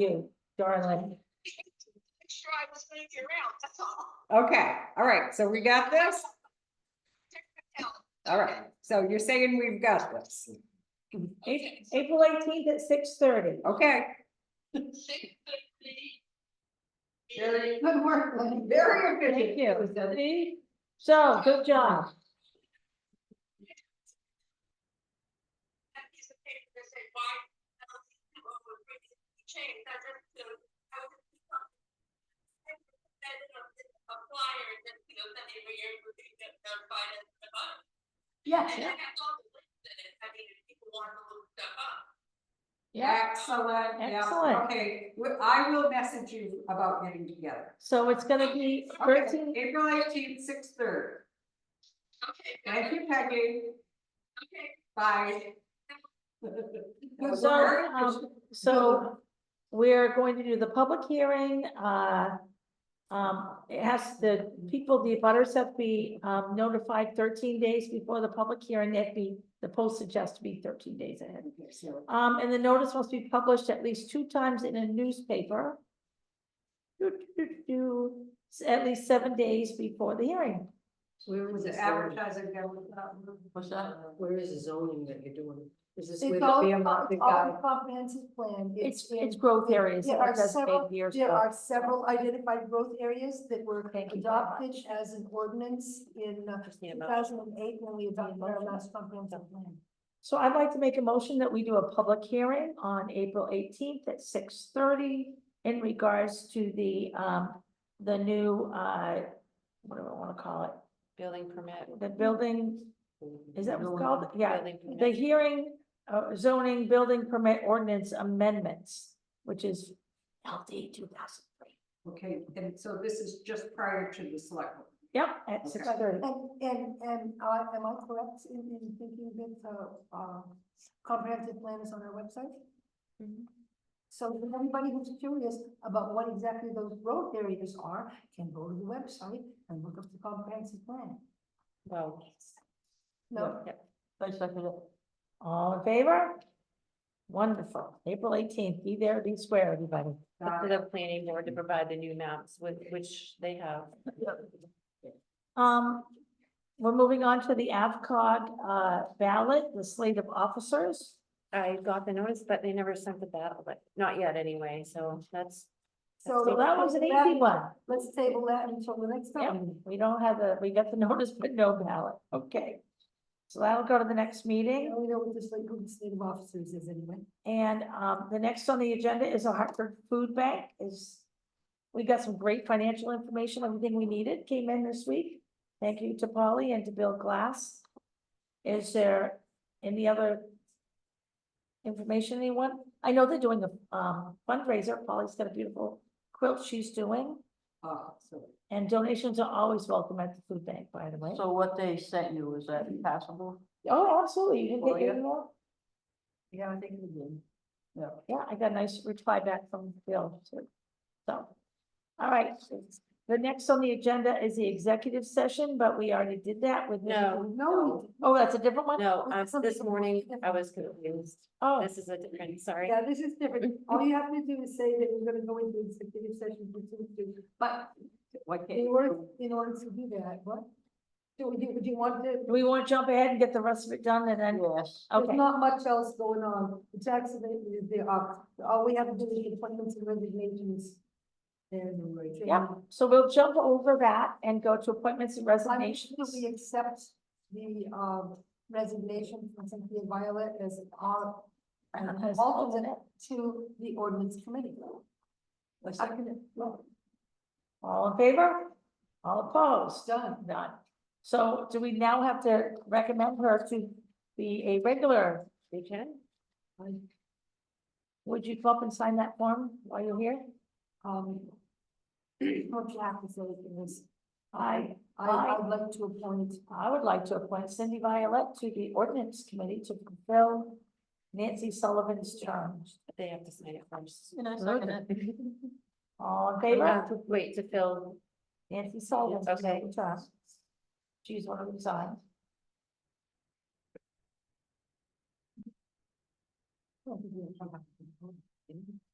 you, darling. Make sure I was moving around, that's all. Okay, all right, so we got this? Tell. All right, so you're saying we've got this, A- April eighteenth at six thirty. okay? Six fifty. Very good work, Lynn. Very Thank efficient. you. See? So, good job. That piece of paper that said why. um, over the Change, that doesn't. feel- I would just keep up. And then, uh, A flyer, and then, you know, send it where you're moving, get notified as the button. Yes, And I have all the links in it, I mean, if people want to look stuff up. Excellent, Excellent. yeah, okay, we- I will message you about getting together. So it's gonna be Okay, thirteen, April eighteenth, six thirty, Okay. good. thank you, Peggy, Okay. bye. That was So, very um, efficient. so we're going to do the public hearing, uh. Um, it has, the people, the butters have to be um notified thirteen days before the public hearing, that'd be, the postage has to be thirteen days ahead. Okay, so, Um, and the notice must be published at least two times in a newspaper. Do, do, do, do, s- at least seven days before the hearing. Where is Was this? it zoning? advertising going without? What's that? Where is the zoning that you're doing? Is this where It's the all, Fairmont, it's the all guy? a comprehensive plan. It's, in- it's growth areas. There like are that's several, been years there ago. are several identified growth areas that were Thank you very adopted as an ordinance in uh, two thousand and eight when we adopted our last comprehensive plan. So I'd like to make a motion that we do a public hearing on April eighteenth at six thirty in regards to the, um, the new, uh, what do I wanna call it? Building permit. The building, is that what it's called? Yeah, building the permit. hearing, uh, zoning building permit ordinance amendments, which is LD two thousand three. Okay, and so this is just prior to the select. board. Yep, at six thirty. And, and, and I, am I correct in, in thinking that, uh, uh, comprehensive plan is on our website? Mhm. So if anybody who's curious about what exactly those growth areas are, can go to the website and look up the comprehensive plan. Well, No, All in favor? Wonderful. April eighteenth, be there, be square, everybody. to the planning board to provide the new maps with, which they have. Um, we're moving on to the AvCog uh, ballot, the slate of officers. I got the notice, but they never sent the battle, but not yet anyway, so that's, so. So that was an easy one. Let's table that until the next Yeah, time. we don't have the, we got the notice, but no ballot. Okay. So that'll go to the next We meeting. know what this like, who the state of officers is anyway. And um, the next on the agenda is a Hartford Food Bank is. We got some great financial information, everything we needed came in this week. Thank you to Polly and to Bill Glass. Is there any other? Information anyone? I know they're doing a um fundraiser. Polly's got a beautiful quilt she's doing. Uh, so, And donations are always welcome at the food bank, by the way. So what they sent you, is that passable? Oh, absolutely. You didn't Oh, get your yeah. email? Yeah, I think it did. Yeah, I got a nice reply back from Bill too. So, all right. The next on the agenda is the executive session, but we already did that with. Mr. No. No, Oh, that's a different one? no, Well, um, something this morning different. I was confused. Oh, This is a different, sorry. yeah, this is different. All you have to do is say that we're gonna go into executive session for two, two, but Why can't in you order, do- in order to do that, what? Do you, do you want to, do we want to jump ahead and get the rest of it done and then, Yes. there's okay, not much else going on. The tax abatement is there, uh, all we have to do is appointments and resignations. And. we're adjourned. Yep. so we'll jump over that and go to appointments and I motion that resignations. we accept the um resignation from Cynthia Violet as our As an alternate. alternate to the ordinance committee. Let's- I can, well, All in favor? All opposed? Done. Done. So do we now have to recommend her to be a regular? We can? Would you come up and sign that form while you're here? um. What you have to say is, I, I I- I'd like to appoint, I would like to appoint Cindy Violet to the ordinance committee to fulfill Nancy Sullivan's term. They have to sign it first. And I second it. All in Uh, favor? to- Wait, to fill, Nancy Sullivan's Okay. term. She's one of the signs. Oh,